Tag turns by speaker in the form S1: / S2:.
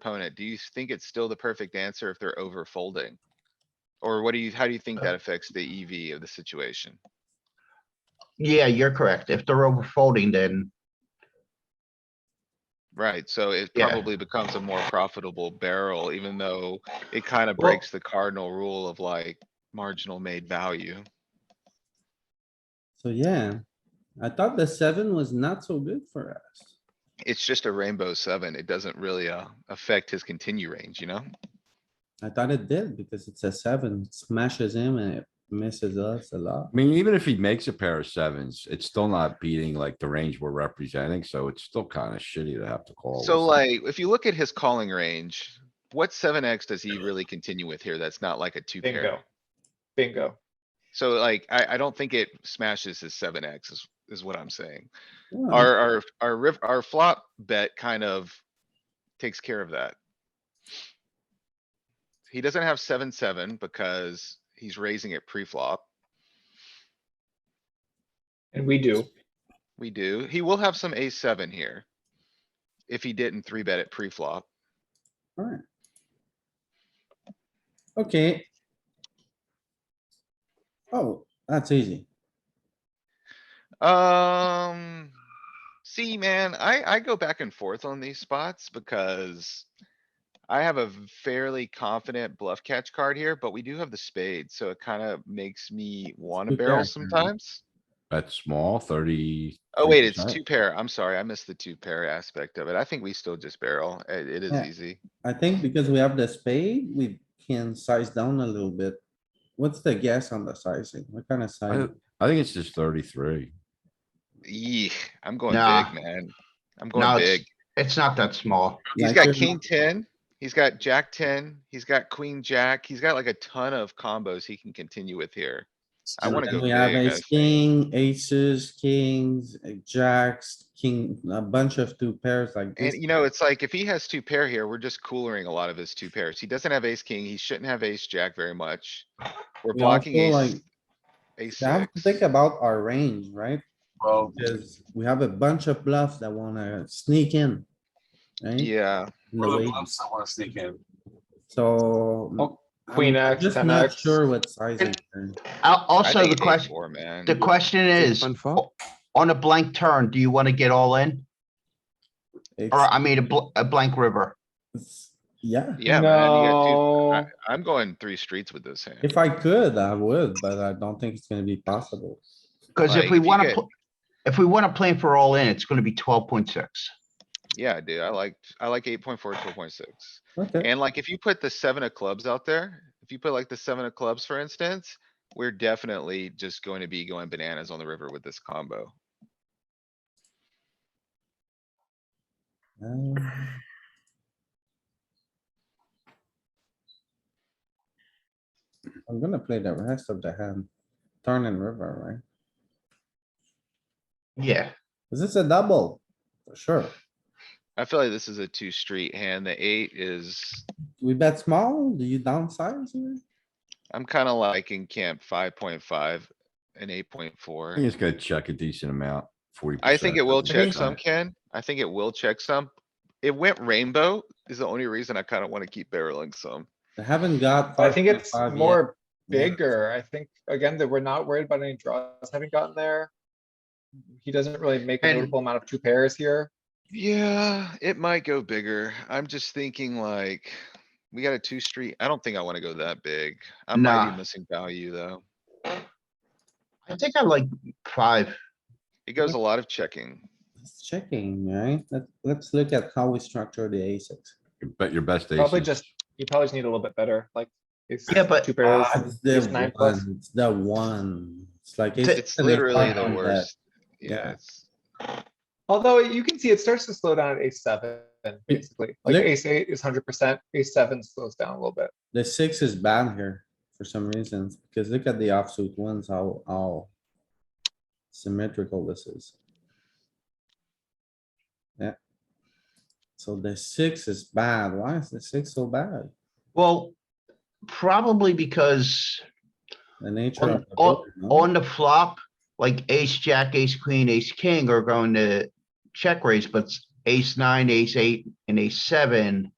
S1: opponent, do you think it's still the perfect answer if they're over folding? Or what do you, how do you
S2: Uh.
S1: think that affects the EV of the situation?
S2: Yeah, you're correct. If they're over folding, then
S1: Right, so it
S2: Yeah.
S1: probably becomes a more profitable barrel, even though it kind of
S2: Well-
S1: breaks the cardinal rule of like marginal made value.
S3: So yeah, I thought the seven was not so good for us.
S1: It's just a rainbow seven. It doesn't really, uh, affect his continue range, you know?
S3: I thought it did because it's a seven, smashes him and it misses us a lot.
S4: I mean, even if he makes a pair of sevens, it's still not beating like the range we're representing, so it's still kind of shitty to have to call.
S1: So
S4: with it.
S1: like, if you look at his calling range, what seven X does he really continue with here? That's not like a two pair.
S5: Bingo. Bingo.
S1: So like, I, I don't think it smashes his seven X is, is what I'm saying.
S3: Yeah,
S1: Our, our, our riv, our flop bet kind of takes care of that. He doesn't have seven, seven because he's raising it pre-flop.
S5: And we do.
S1: We do. He will have some ace seven here. If he didn't three bet it pre-flop.
S3: alright. Okay. Oh, that's easy.
S1: Um, see, man, I, I go back and forth on these spots because I have a fairly confident bluff catch card here, but we do have the spade, so it kind of makes me want to
S3: Two pair.
S1: barrel sometimes.
S4: That's small, thirty.
S1: Oh, wait, it's two pair. I'm sorry, I missed the two pair aspect of it. I think we still just barrel. It- it is
S3: Yeah.
S1: easy.
S3: I think because we have the spade, we can size down a little bit. What's the guess on the sizing? What kind of size?
S4: I think it's just thirty-three.
S1: Yee, I'm going
S2: Nah.
S1: big, man. I'm
S2: No,
S1: going
S2: it's-
S1: big.
S2: it's not that small.
S1: He's
S3: Like
S1: got
S3: there's
S1: king
S3: no-
S1: ten, he's got jack ten, he's got queen jack, he's got like a ton of combos he can continue with here. I
S3: And
S1: wanna
S3: then
S1: go
S3: We have
S1: big, I
S3: ace, king, aces, kings, uh, jacks, king, a bunch of two pairs like
S1: And
S3: this.
S1: you know, it's like if he has two pair here, we're just coolering a lot of his two pairs. He doesn't have ace king, he shouldn't have ace jack very much. We're
S3: We also,
S1: blocking ace,
S3: like,
S1: ace
S3: I have to
S1: six.
S3: think about our range, right?
S2: Well.
S3: Because we have a bunch of bluffs that wanna sneak in. right?
S1: Yeah,
S3: In the way.
S6: I want to sneak in.
S3: So.
S5: Oh,
S3: I'm
S5: queen X,
S3: Just
S5: 10
S3: not
S5: X.
S3: sure what sizing. here.
S1: I
S2: Also,
S1: think it's
S2: the
S1: ace
S2: question,
S1: four, man.
S2: the question is, o- on a blank turn, do you want to get all in? Or,
S3: It's-
S2: I mean, a bl- a blank river?
S3: it's- Yeah,
S1: Yeah, man, you got two-
S5: No.
S1: I- I'm going three streets with this hand.
S3: if I could, I would, but I don't think it's gonna be possible.
S2: Because
S1: Like,
S2: if we
S1: if you
S2: want
S1: get-
S2: to, if we want to plan for all in, it's going to be twelve point six.
S1: Yeah, dude, I liked, I like eight point four, twelve point six.
S3: Okay,
S1: And like, if you put the seven of clubs out there, if you put like the seven of clubs, for instance, we're definitely just going to be going bananas on the river with this combo.
S3: um, I'm gonna play the rest of the hand, turn and river, right?
S2: Yeah,
S3: Is this a double? For Sure.
S1: I feel like this is a two street hand. The eight is,
S3: We bet small, do you downsize here?
S1: I'm kinda liking camp five point five and eight point
S4: I
S1: four.
S4: think it's gonna check a decent amount, forty.
S1: I think it will check
S4: percent.
S1: some, Ken. I think it will check some. It went rainbow is the only reason I kinda wanna keep barreling some.
S3: I haven't got.
S5: I think it's
S3: 5.5 yet.
S5: more
S3: Yeah.
S5: bigger. I think, again, that we're not worried about any draws having gotten there. He doesn't really make a
S2: And-
S5: notable amount of two pairs here.
S1: Yeah, it might go bigger. I'm just thinking like, we got a two street. I don't think I wanna go that big. I might
S2: Nah.
S1: be missing value though.
S2: I think I like five.
S1: It goes a lot of checking.
S3: It's checking, right? Let, let's look at how we structure the aces.
S4: Bet your best
S5: Probably
S4: aces.
S5: just, you probably just need a little bit better, like. ace-
S2: Yeah, but- uh,
S5: Two pairs.
S3: Ah, It's the
S5: ace nine plus.
S3: one, it's the one. It's like. ace
S1: It's
S3: six and ace
S1: literally
S3: five
S1: the
S3: on that.
S1: worst.
S3: Yeah.
S1: Yeah, it's.
S5: Although you can see it starts to slow down at ace seven, basically. Like
S3: Nick-
S5: ace eight is hundred percent, ace seven slows down a little bit.
S3: The six is bad here for some reasons, because look at the offsuit ones, how, how symmetrical this is. Yeah. So the six is bad. Why is the six so bad?
S2: Well, probably because
S3: The nature of. the
S2: On-
S3: board, no?
S2: on the flop, like ace, jack, ace, queen, ace, king are going to check raise, but ace nine, ace eight, and ace seven